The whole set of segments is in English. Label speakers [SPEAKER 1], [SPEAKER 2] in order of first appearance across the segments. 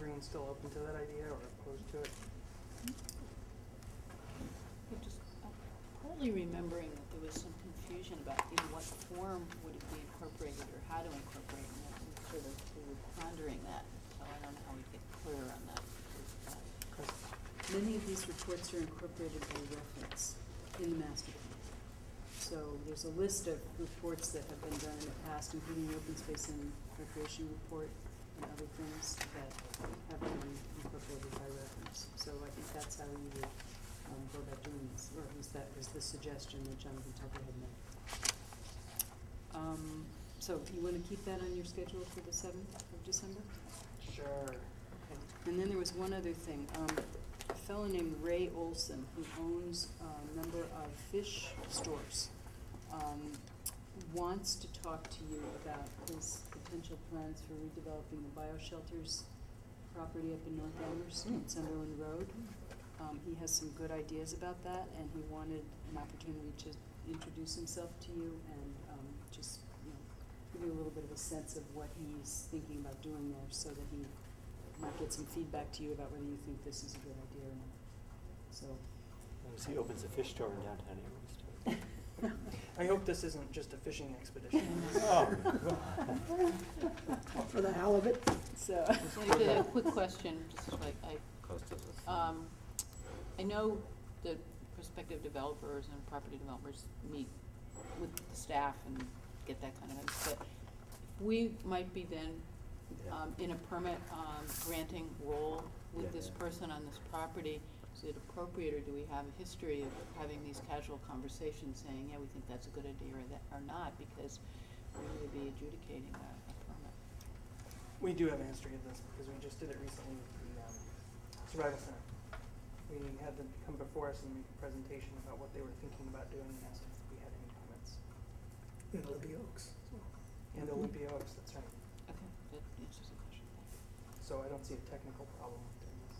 [SPEAKER 1] anyone still open to that idea or opposed to it?
[SPEAKER 2] I'm just I'm Partly remembering that there was some confusion about in what form would it be incorporated or how to incorporate it, and we sort of, we were pondering that, so I don't know how we get clear on that. because, uh,
[SPEAKER 1] 'Cause
[SPEAKER 3] Many of these reports are incorporated by reference in the master plan. So there's a list of reports that have been done in the past, including the open space and recreation report and other things that have been incorporated by reference. So I think that's how you would um, go about doing this, or at least that was the suggestion that Jonathan Tucker had made. Um, so you wanna keep that on your schedule for the seventh of December?
[SPEAKER 1] Sure.
[SPEAKER 3] And then there was one other thing, um, a fellow named Ray Olson, who owns a number of fish stores, um, wants to talk to you about his potential plans for redeveloping the bioshelters property up in North Elmhurst, on Sunderland Road. Um, he has some good ideas about that, and he wanted an opportunity to introduce himself to you and, um, just, you know, give you a little bit of a sense of what he's thinking about doing there, so that he might get some feedback to you about whether you think this is a good idea or not. So,
[SPEAKER 4] He opens a fish store in downtown Amherst.
[SPEAKER 1] I hope this isn't just a fishing expedition.
[SPEAKER 4] Oh.
[SPEAKER 5] for the hell of it.
[SPEAKER 3] so,
[SPEAKER 2] Like, a quick question, just like, I,
[SPEAKER 4] Cost us a fee.
[SPEAKER 2] um, I know that prospective developers and property developers meet with the staff and get that kind of, info, but we might be then,
[SPEAKER 4] Yeah.
[SPEAKER 2] um, in a permit, um, granting role with
[SPEAKER 4] Yeah,
[SPEAKER 2] this
[SPEAKER 4] yeah.
[SPEAKER 2] person on this property. Is it appropriate, or do we have a history of having these casual conversations, saying, yeah, we think that's a good idea or that, or not, because we're gonna be adjudicating a, a permit?
[SPEAKER 1] We do have a history of this because we just did it recently with the um, survival center. We had them come before us and make a presentation about what they were thinking about doing and asked if we had any comments.
[SPEAKER 5] In Olympia Oaks.
[SPEAKER 1] And Olympia Oaks, that's right.
[SPEAKER 2] Okay, that answers the question, thank you.
[SPEAKER 1] So I don't see a technical problem with doing this.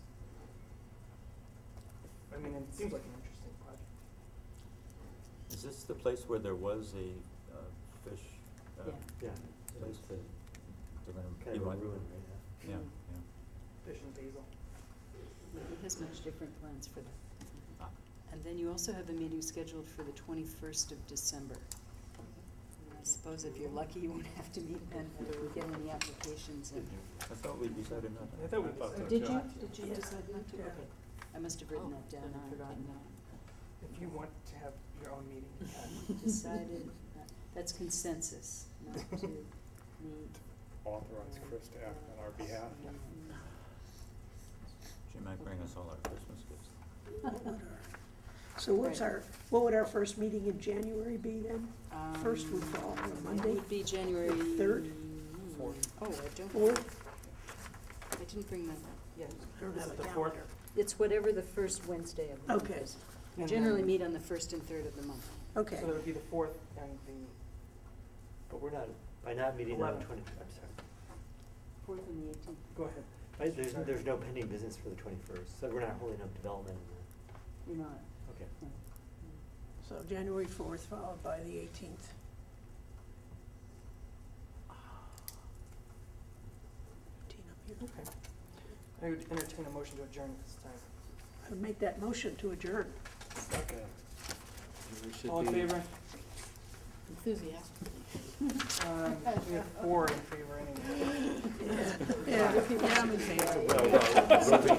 [SPEAKER 1] I mean, it seems like an interesting project.
[SPEAKER 6] Is this the place where there was a uh, fish uh,
[SPEAKER 3] Yeah.
[SPEAKER 4] Yeah,
[SPEAKER 6] place
[SPEAKER 4] it's
[SPEAKER 6] that, that I'm-
[SPEAKER 4] kind of
[SPEAKER 6] you
[SPEAKER 4] a
[SPEAKER 6] want-
[SPEAKER 4] ruin right now.
[SPEAKER 6] Yeah,
[SPEAKER 3] Mm.
[SPEAKER 6] yeah.
[SPEAKER 1] Fish and basil.
[SPEAKER 3] he has much different plans for that.
[SPEAKER 6] Ah,
[SPEAKER 3] And then you also have a meeting scheduled for the twenty-first of December. And I suppose if you're lucky, you won't have to meet then, whether we get any applications and.
[SPEAKER 6] I thought we decided not to.
[SPEAKER 1] I thought we decided.
[SPEAKER 3] Did you, did you decide not to?
[SPEAKER 1] Yeah.
[SPEAKER 3] Okay, I must have written that down
[SPEAKER 2] Oh, then
[SPEAKER 3] and
[SPEAKER 2] I
[SPEAKER 3] forgotten
[SPEAKER 2] didn't
[SPEAKER 3] that.
[SPEAKER 1] If you want to have your own meeting, you can.
[SPEAKER 3] Decided, not- that's consensus, not to meet.
[SPEAKER 7] authorize Chris to act on our behalf.
[SPEAKER 3] Mm.
[SPEAKER 6] She might bring us all our Christmas gifts.
[SPEAKER 5] So what's
[SPEAKER 3] Right.
[SPEAKER 5] our, what would our first meeting in January be then? First would
[SPEAKER 3] Um,
[SPEAKER 5] fall on a
[SPEAKER 3] It
[SPEAKER 5] Monday,
[SPEAKER 3] would be January.
[SPEAKER 5] Third?
[SPEAKER 4] Fourth.
[SPEAKER 3] Oh, I don't,
[SPEAKER 5] or,
[SPEAKER 3] I didn't bring that up, yeah.
[SPEAKER 5] I don't
[SPEAKER 1] Is
[SPEAKER 5] have a
[SPEAKER 1] it the fourth?
[SPEAKER 5] calendar.
[SPEAKER 3] It's whatever the first Wednesday of the month
[SPEAKER 5] Okay.
[SPEAKER 3] is. We
[SPEAKER 1] And
[SPEAKER 3] generally
[SPEAKER 1] then-
[SPEAKER 3] meet on the first and third of the month.
[SPEAKER 5] Okay,
[SPEAKER 1] So that would be the fourth and the
[SPEAKER 4] But we're not, by not meeting on
[SPEAKER 1] Eleven.
[SPEAKER 4] twenty, I'm sorry,
[SPEAKER 3] Fourth and the eighteenth.
[SPEAKER 1] Go ahead.
[SPEAKER 4] But there's, there's no pending business for the twenty-first, so we're not holding up development in
[SPEAKER 3] You're not,
[SPEAKER 4] that, okay.
[SPEAKER 3] no.
[SPEAKER 5] so January fourth followed by the eighteenth.
[SPEAKER 1] Okay. I would entertain a motion to adjourn at this time.
[SPEAKER 5] I would make that motion to adjourn.
[SPEAKER 6] We should
[SPEAKER 1] All in
[SPEAKER 6] be-
[SPEAKER 1] favor?
[SPEAKER 2] Enthusiastically.
[SPEAKER 1] Um, We have four in favor anyway.
[SPEAKER 5] Yeah, yeah, I'm in favor.
[SPEAKER 6] Well, well, we'll be-